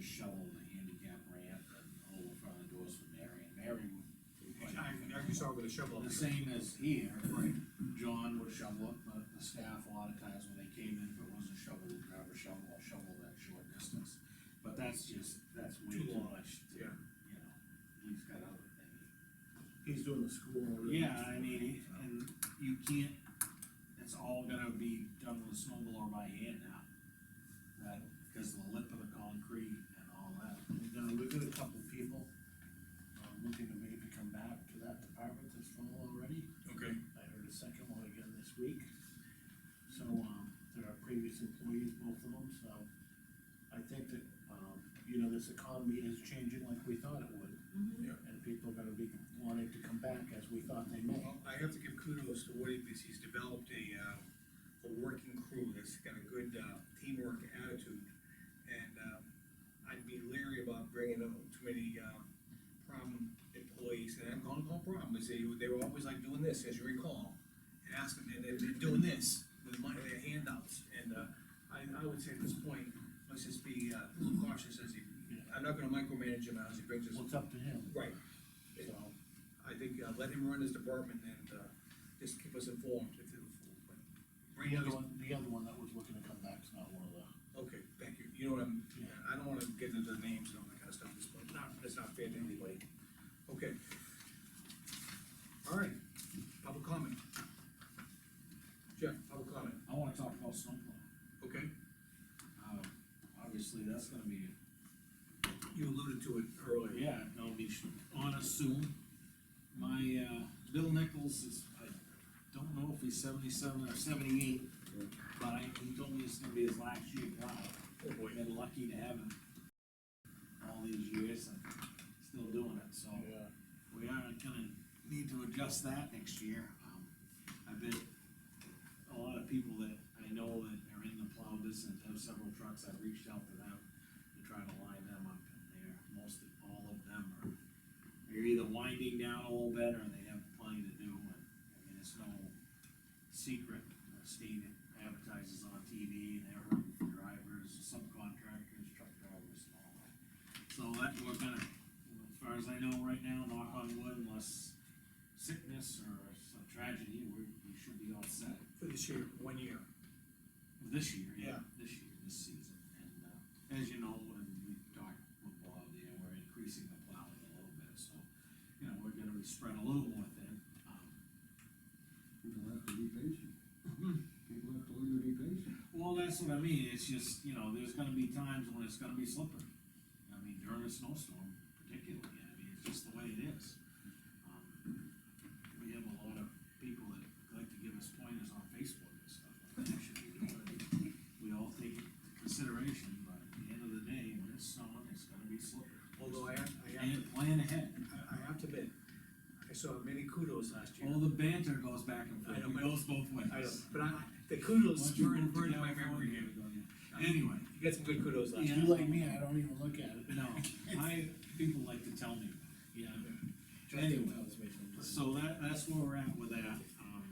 shovel and the handicap ramp and over front of the doors for Mary, and Mary would. I, I saw with a shovel. The same as here, John would shovel it, but the staff, a lot of times when they came in, if it wasn't shoveled, would grab a shovel, and shovel that short distance. But that's just, that's way Too too long, much to, yeah. you know, he's got other things. He's doing the school. and- Yeah, I mean, and you can't, it's all gonna be done with a snow blower by hand now. That, because of the lip of the concrete and all that. We've got, uh, we've got a couple people, um, looking to maybe come back to that department this fall already. Okay. I heard a second one again this week. So, um, there are previous employees, both of them, so I think that, um, you know, this economy is changing like we thought it would. Yeah. And people are gonna be wanting to come back as we thought they may. Well, I have to give kudos to Woody, because he's developed a, uh, a working crew that's got a good, uh, teamwork attitude. And, um, I'd be leery about bringing up too many, um, problem employees, and I'm gonna call problems, they, they were always like doing this, as you recall. And asking, and they're, they're doing this with money, their handouts, and, uh, I, I would say at this point, let's just be, uh, a little cautious as he, I'm not gonna micromanage him as he brings us. Well, it's up to him, Right, so. I think, uh, let him run his department and, uh, just keep us informed if it. The other one, the other one that was looking to come back is not one of the, Okay, thank you, you know what I'm, I don't wanna get into the names and all that kinda stuff, it's not, it's not fair to anybody. Okay. All right, public comment. Jeff, public comment, I wanna talk about snow blower. okay, Um, obviously, that's gonna be, you alluded to it earlier. yeah, that'll be sh- on us soon. My, uh, Bill Nichols is, I don't know if he's seventy-seven or seventy-eight, but I, he told me it's gonna be his last year, wow. Oh, boy. We've been lucky to have him all these years and still doing it, so yeah. we are gonna need to adjust that next year. Um, I bet a lot of people that I know that are in the plow business have several trucks, I've reached out to them to try to line them up, and they're, most, all of them are, they're either winding down a little bit, or they have plenty to do, and, I mean, it's no secret, the state advertises on TV, and they're hurting for drivers, subcontractors, truck drivers, and all that. So that, we're gonna, as far as I know right now, knock on wood, unless sickness or some tragedy, we, we should be all set. For this year, one year. This year, Yeah. yeah, this year, this season, and, uh, as you know, when we talked with Bob, you know, we're increasing the plowing a little bit, so, you know, we're gonna be spread a little more thin. Um, People have to be patient. Hmm. People have to learn to be patient. Well, that's what I mean, it's just, you know, there's gonna be times when it's gonna be slippery. I mean, during a snowstorm particularly, I mean, it's just the way it is. Um, We have a lot of people that like to give us pointers on Facebook and stuff, what they should be doing. We all take it into consideration, but at the end of the day, when it's snowing, it's gonna be slippery. Although I have, I have, And plan ahead, I- I have to admit, I saw many kudos last year. all the banter goes back and I forth, know, it but- goes both ways. I don't, but I, the Once kudos you were in, move to were in my California, memory. we go, yeah. Anyway, You got some good kudos last Yeah. year. You like me, I don't even look at it. No, I, people like to tell me, yeah. Justin Anyway, tells me sometimes. so that, that's where we're at with that, um,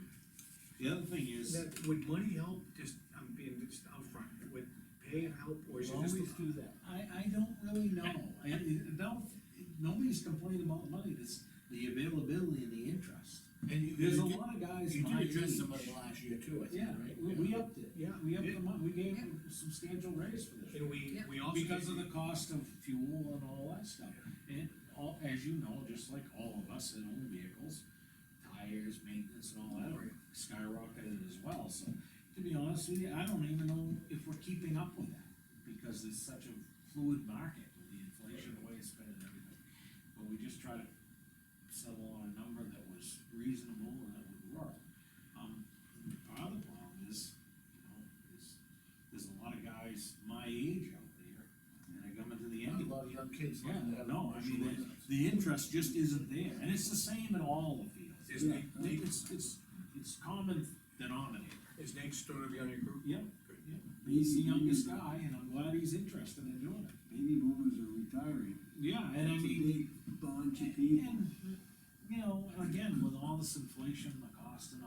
the other thing is, That- Would money help, just, I'm being just upfront, would pay help, or is We it just? always do that. I, I don't really know, I, I don't, nobody's complaining about money, it's the availability and the interest. And you, There's a you did- lot of guys You my did address age- some of it last year too, I think, Yeah, right? we, we upped it, Yeah. we upped the money, we gave a substantial raise for this. And we, we also. Because of the cost of fuel and all that stuff, and all, as you know, just like all of us that own vehicles, tires, maintenance and all that are skyrocketed as well, so. To be honest with you, I don't even know if we're keeping up with that, because it's such a fluid market with the inflation, the way it's been and everything. But we just try to settle on a number that was reasonable and that would work. Um, and part of the problem is, you know, is there's a lot of guys my age out there, and I come into the A end. lot of young kids. Yeah, like to have no, I commercial mean, license. the- the interest just isn't there, and it's the same in all the fields. Is Nate, Nate- It's, it's, it's common denominator. is Nate Stoner on your group? Yep, yep, he's the youngest guy, and I'm glad he's interested in doing it. Baby boomers are retiring. Yeah, and I It's a mean, big bunch of people. And, you know, again, with all this inflation, the cost and